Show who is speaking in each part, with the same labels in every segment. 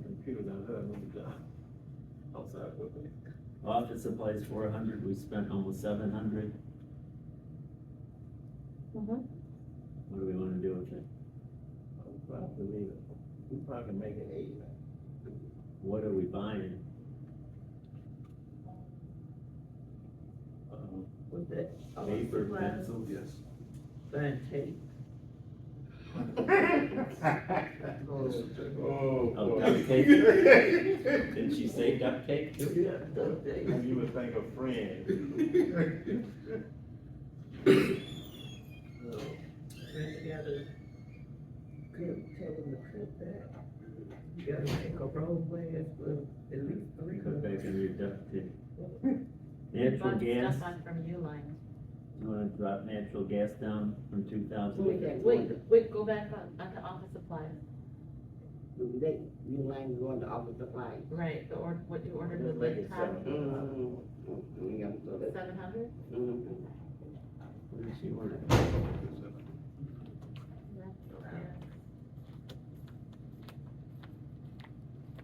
Speaker 1: computers I've heard with the job. Outside equipment.
Speaker 2: Office supplies four hundred, we spent almost seven hundred.
Speaker 3: Mm-hmm.
Speaker 4: Mhm.
Speaker 2: What do we wanna do with it?
Speaker 1: I'm proud to leave it. We probably can make it eight.
Speaker 2: What are we buying?
Speaker 1: Um,
Speaker 4: With it.
Speaker 2: Paper,
Speaker 4: Supplies,
Speaker 2: pencil,
Speaker 1: Yes.
Speaker 4: Burn tape.
Speaker 1: Oh.
Speaker 2: Oh,
Speaker 1: boy.
Speaker 2: duct tape. Didn't she say duct tape?
Speaker 4: Yeah, duct tape.
Speaker 1: You would think a friend.
Speaker 4: Bring together. Crib, taking the crib back. You gotta make a roadway as well, at least three.
Speaker 2: Go back and read duct tape.
Speaker 3: Bunch of
Speaker 2: Natural gas,
Speaker 3: Stuff on from Uline.
Speaker 2: you wanna drop natural gas down from two thousand?
Speaker 3: Wait, wait, wait, go back on, on the office supplies.
Speaker 5: They, you mind going to office supply?
Speaker 3: Right, the or, what you ordered
Speaker 1: Let's
Speaker 3: with
Speaker 1: make it
Speaker 3: Lake Tahoe,
Speaker 1: seven.
Speaker 5: Mm, mm, yeah, so that-
Speaker 3: seven hundred?
Speaker 5: mm,
Speaker 2: What did she order?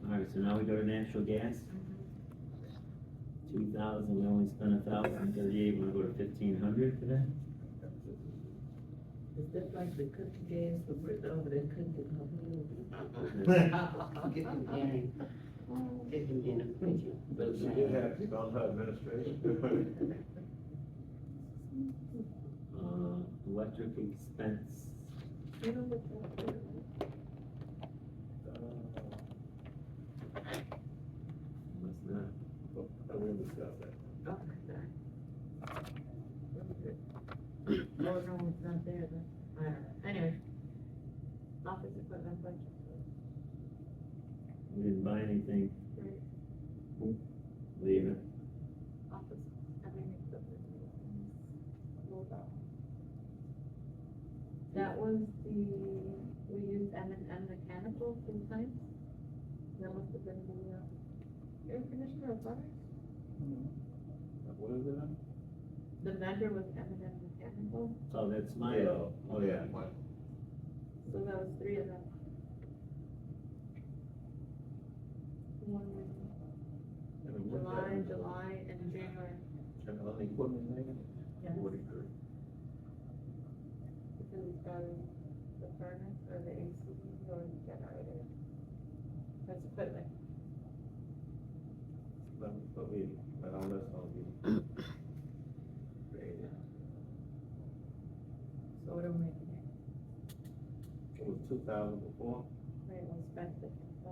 Speaker 2: Alright, so now we go to natural gas. Two thousand, we only spent a thousand thirty-eight, wanna go to fifteen hundred for that?
Speaker 4: It's just like the cookie gas, the brick over there cooking.
Speaker 5: Get some dinner,
Speaker 3: Oh,
Speaker 5: get some dinner, thank you.
Speaker 1: But she did have people on her administration.
Speaker 2: Uh, electric expense,
Speaker 4: You know what that is?
Speaker 2: was not,
Speaker 1: I will discuss that.
Speaker 4: Okay.
Speaker 3: Boardroom was not there, but, I don't know, anyway. Office equipment budget.
Speaker 2: we didn't buy anything.
Speaker 3: Right.
Speaker 2: Leave it.
Speaker 3: office, everything except for the roll down. That was the, we used M and M mechanical three times. That must have been the, uh, air conditioner or fire.
Speaker 1: What is it?
Speaker 3: The vendor was M and M mechanical,
Speaker 2: Oh, that's my, oh,
Speaker 1: Oh, yeah.
Speaker 3: so that was three of them. One was
Speaker 1: And what's that?
Speaker 3: July, July, and January,
Speaker 1: And on the equipment thing?
Speaker 3: Yes.
Speaker 1: Forty-three.
Speaker 3: because we started the furnace or the AC or the generator. That's equipment.
Speaker 1: But, but we, but all that's gonna be. created.
Speaker 3: So what are we making here?
Speaker 1: It was two thousand before.
Speaker 3: Right, we spent the, uh,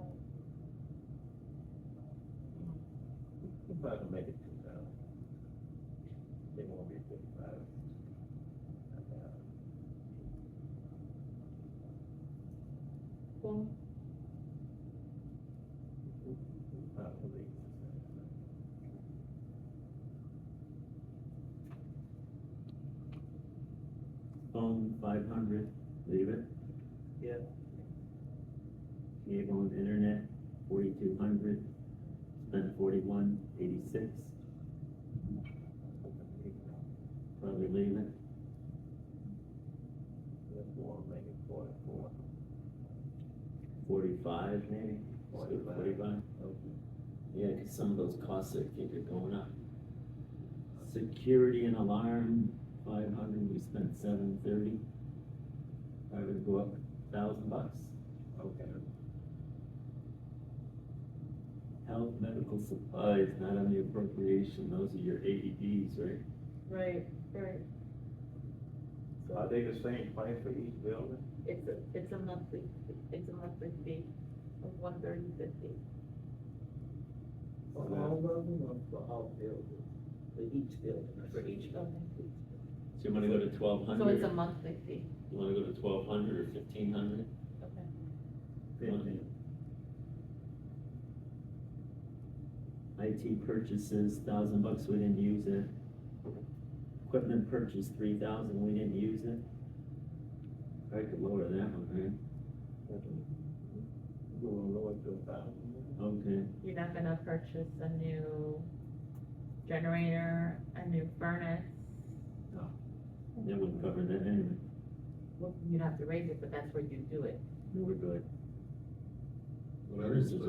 Speaker 1: We probably can make it two thousand. They won't be fifty-five.
Speaker 3: phone
Speaker 1: Probably.
Speaker 2: phone, five hundred, leave it.
Speaker 1: Yeah.
Speaker 2: Cable and internet, forty-two hundred, spent forty-one, eighty-six, probably leave it.
Speaker 1: Let's go and make it forty-four.
Speaker 2: Forty-five maybe? Let's go
Speaker 1: 45.
Speaker 2: Forty-five?
Speaker 1: Okay.
Speaker 2: Yeah, 'cause some of those costs I think are going up. Security and alarm, five hundred, we spent seven thirty. I would go up thousand bucks.
Speaker 1: Okay.
Speaker 2: Health, medical supplies, not on the appropriation, those are your AEDs, right?
Speaker 3: Right, right.
Speaker 1: Are
Speaker 3: So
Speaker 1: they the same price for each building?
Speaker 3: it's a, it's a monthly, it's a monthly fee of one thirty fifty.
Speaker 4: For all of them or for all buildings? For each building?
Speaker 3: For each building.
Speaker 2: So you wanna go to twelve
Speaker 3: So it's
Speaker 2: hundred,
Speaker 3: a monthly fee.
Speaker 2: you wanna go to twelve hundred or fifteen hundred?
Speaker 3: Okay.
Speaker 1: Fifteen.
Speaker 2: IT purchases, thousand bucks, we didn't use it. Equipment purchase, three thousand, we didn't use it. I could lower that one, right?
Speaker 1: Go on lower to a thousand.
Speaker 2: Okay,
Speaker 3: You're not gonna purchase a new generator, a new furnace.
Speaker 2: that wouldn't cover that anyway,
Speaker 3: Well, you'd have to raise it, but that's where you do it.
Speaker 2: no, we're good.
Speaker 6: Whatever it is.